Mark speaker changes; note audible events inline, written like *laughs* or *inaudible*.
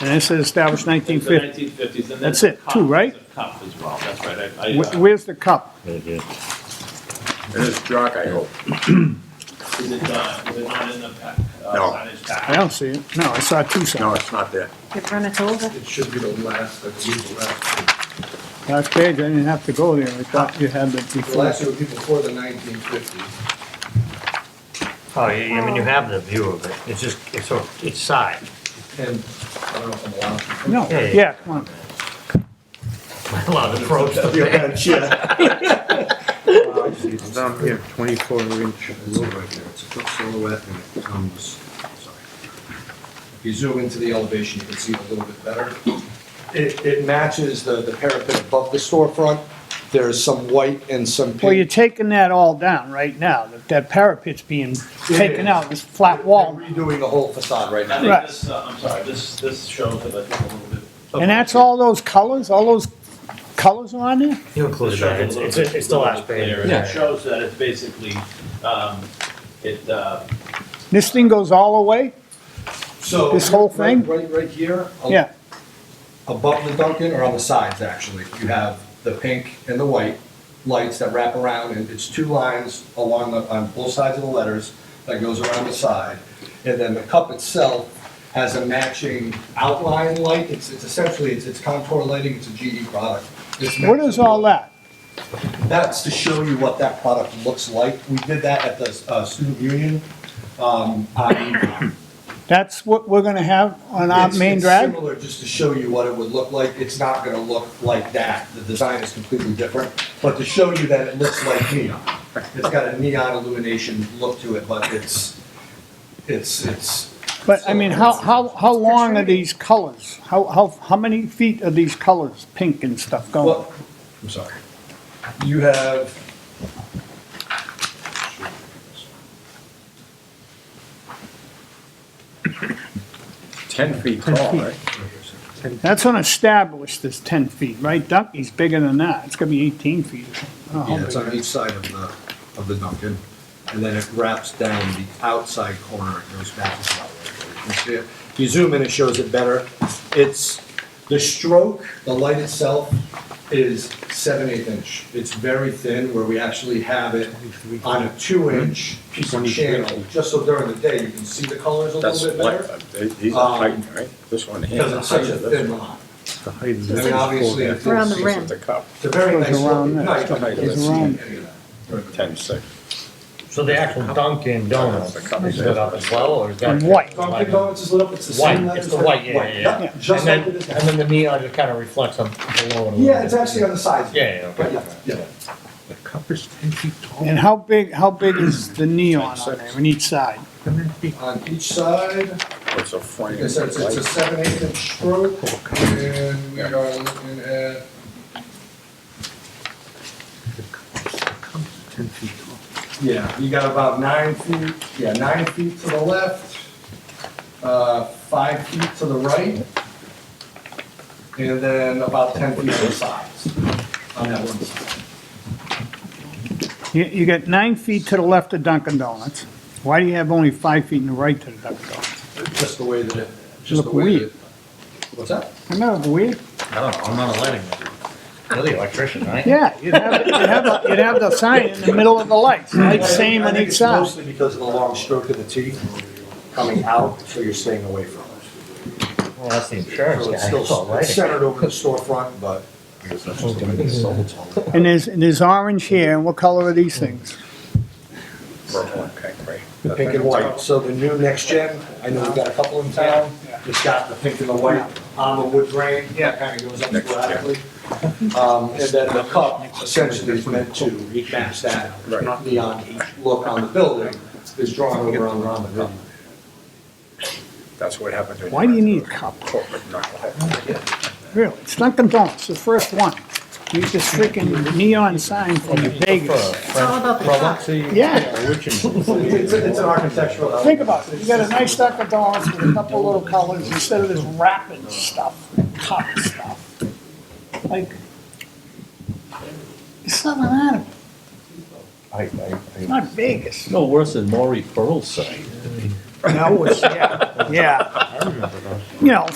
Speaker 1: And it says established nineteen
Speaker 2: It's the
Speaker 1: fifty.
Speaker 2: 1950s, and
Speaker 1: That's
Speaker 2: there's a
Speaker 1: it,
Speaker 2: cup,
Speaker 1: two, right?
Speaker 2: there's a Cup as well, that's right. I- I, uh,
Speaker 1: Where's the cup?
Speaker 3: And it's dark, I hope.
Speaker 2: Is it uh, is it not in the pack? uh,
Speaker 3: No.
Speaker 2: signage pack?
Speaker 1: I don't see it. No, I saw two
Speaker 3: No,
Speaker 1: signs.
Speaker 3: it's not there.
Speaker 4: You've run it over.
Speaker 5: It should be the last, I believe, the last.
Speaker 1: Last page, I didn't have to go there. I thought you had it
Speaker 5: The
Speaker 1: before.
Speaker 5: last it would be before the nineteen fifties.
Speaker 6: Oh, you- I mean, you have the view of it, it's just, it's, sort of- it's side.
Speaker 5: And I don't know if I'm allowed to. *laughs*
Speaker 1: No,
Speaker 6: Yeah, yeah.
Speaker 1: yeah, come on.
Speaker 6: *laughs* A lot of approach to
Speaker 5: Your
Speaker 6: that.
Speaker 5: bench, yeah.
Speaker 7: *laughs* It's down here, twenty-four inch road right there, it's a good silhouette and it comes, sorry.
Speaker 5: If you zoom into the elevation, you can see it a little bit better. It, it matches the, the parapet above the storefront. There's some white and some pink.
Speaker 1: Well, you're taking that all down right now. That- That parapet's being taken
Speaker 5: is.
Speaker 1: out, this flat wall.
Speaker 5: They're Redoing the whole facade right
Speaker 2: I
Speaker 5: now.
Speaker 2: think
Speaker 1: Right.
Speaker 2: this, uh, I'm sorry, this, this shows it I think, a little bit.
Speaker 1: And that's all those colors, all those colors are on there?
Speaker 6: You
Speaker 2: This
Speaker 6: included
Speaker 2: shows it
Speaker 6: that,
Speaker 2: a
Speaker 6: it's,
Speaker 2: little
Speaker 6: it's,
Speaker 2: bit-
Speaker 6: it's the
Speaker 2: little
Speaker 6: last
Speaker 2: bit
Speaker 6: page.
Speaker 2: clearer, and It shows that it's basically, um, it, uh,
Speaker 1: This thing goes all the way?
Speaker 5: So.
Speaker 1: This whole thing?
Speaker 5: Right, right here. a-
Speaker 1: Yeah.
Speaker 5: above the Duncan or on the sides, actually. You have the pink and the white lights that wrap around, and it's two lines along the, on both sides of the letters that goes around the side. And then the cup itself has a matching outline light. It's, it's essentially, it's, it's contour lighting, it's a GE product. It's meant
Speaker 1: What is all that?
Speaker 5: that's to show you what that product looks like. We did that at the uh, Student Union. um, on-
Speaker 1: That's what we're gonna have on our
Speaker 5: It's-
Speaker 1: main
Speaker 5: it's
Speaker 1: drag?
Speaker 5: Similar, just to show you what it would look like, it's not gonna look like that, the design is completely different, but to show you that it looks like neon. It's got a neon illumination look to it, but it's, it's, it's.
Speaker 1: But, I mean, how, how, how long are these colors? How, how, how many feet are these colors, pink and stuff going?
Speaker 5: Well, I'm sorry. You have.
Speaker 3: Ten feet tall, right?
Speaker 1: That's unestablished, this ten feet, right? Dunkey's bigger than that. It's gonna be eighteen feet or something.
Speaker 6: Oh.
Speaker 1: I don't know
Speaker 5: Yeah,
Speaker 1: how
Speaker 5: it's
Speaker 1: big
Speaker 5: on
Speaker 1: it
Speaker 5: each
Speaker 1: is.
Speaker 5: side of the, of the Duncan, and then it wraps down the outside corner, it goes back as well. You can see it. If you zoom in, it shows it better. It's, the stroke, the light itself is seven eighth inch. It's very thin, where we actually have it on a two inch piece of channel, just so during the day, you can see the colors a
Speaker 3: That's
Speaker 5: little bit
Speaker 3: what, uh,
Speaker 5: better, Ah.
Speaker 3: he's a height, right? This one here.
Speaker 5: because it's such a thin line. I mean, obviously, if
Speaker 4: Around the
Speaker 5: it's-
Speaker 4: rim.
Speaker 3: The cup,
Speaker 5: It's a very
Speaker 1: Goes
Speaker 5: nice
Speaker 1: around
Speaker 5: looking
Speaker 1: that.
Speaker 5: night, but you
Speaker 3: Goes
Speaker 5: can't see
Speaker 1: around.
Speaker 5: any of that. during the day.
Speaker 3: ten six.
Speaker 6: So the actual Dunkin' Donuts is lit up as well, or is that?
Speaker 1: And white.
Speaker 5: Dunkin' Donuts is lit up, it's the same
Speaker 6: White,
Speaker 5: letters.
Speaker 6: it's the
Speaker 5: but
Speaker 6: white, yeah, yeah, yeah.
Speaker 5: Just like
Speaker 6: And
Speaker 5: it
Speaker 6: then,
Speaker 5: is.
Speaker 6: and then the neon just kind of reflects up below it a little
Speaker 5: Yeah, it's
Speaker 6: bit.
Speaker 5: actually on the sides.
Speaker 6: Yeah, yeah,
Speaker 5: But
Speaker 6: okay.
Speaker 5: yeah, yeah.
Speaker 7: The cup is ten feet tall.
Speaker 1: And how big, how big is the neon on there, on each side?
Speaker 7: And then big
Speaker 5: On each side,
Speaker 3: It's a frame.
Speaker 5: like I said, it's it's a
Speaker 3: light.
Speaker 5: seven eighth inch stroke, and we are looking at,
Speaker 7: cup is ten feet tall.
Speaker 5: yeah, you got about nine feet, yeah, nine feet to the left, uh, five feet to the right, and then about ten feet to the sides on that one side.
Speaker 1: You, you got nine feet to the left of Dunkin' Donuts. Why do you have only five feet in the right to the Dunkin' Donuts?
Speaker 5: Just the way that it, just
Speaker 1: Look
Speaker 5: the way that
Speaker 1: weird.
Speaker 5: it. What's that?
Speaker 1: Isn't that weird?
Speaker 6: I don't know, I'm not a lighting man. You're the electrician, right?
Speaker 1: Yeah, you'd have, you'd have, a- you'd have the sign in the middle of the lights, right, same
Speaker 5: I
Speaker 1: on
Speaker 5: think
Speaker 1: each
Speaker 5: it's
Speaker 1: side.
Speaker 5: Mostly because of the long stroke of the T coming out, so you're staying away from it.
Speaker 6: Well, that's the insurance
Speaker 5: So
Speaker 6: guy,
Speaker 5: it's
Speaker 6: it's all
Speaker 5: still it's
Speaker 6: lighting.
Speaker 5: centered over the storefront, but.
Speaker 1: And there's, and there's orange here, and what color are these things?
Speaker 3: Purple and pink, right?
Speaker 5: The pink and white, so the new next gen, I know we've got a couple in town, it's got the pink and the white on the wood grain, that kind of goes up
Speaker 3: Next gen.
Speaker 5: sporadically. Um, and then the cup essentially is meant to match that
Speaker 3: Right.
Speaker 5: neon look on the building, is drawn over on on the cup.
Speaker 3: That's what happened. when
Speaker 1: Why do you
Speaker 3: went
Speaker 1: need
Speaker 3: to
Speaker 1: a cup?
Speaker 3: Corporate, not like-
Speaker 1: Really, it's Dunkin' Donuts, the first one. You need this freaking neon sign from Vegas.
Speaker 4: It's all about the cup.
Speaker 1: Yeah,
Speaker 5: It's, it's an architectural element.
Speaker 1: think about it, you got a nice Dunkin' Donuts with a couple little colors instead of this wrapping stuff, and cup stuff. Like, it's something out of it,
Speaker 6: I, I,
Speaker 1: it's not Vegas.
Speaker 8: No worse than Maury Pearl's site.
Speaker 1: No, it's, yeah, yeah.
Speaker 6: I remember those.
Speaker 1: *laughs* You know,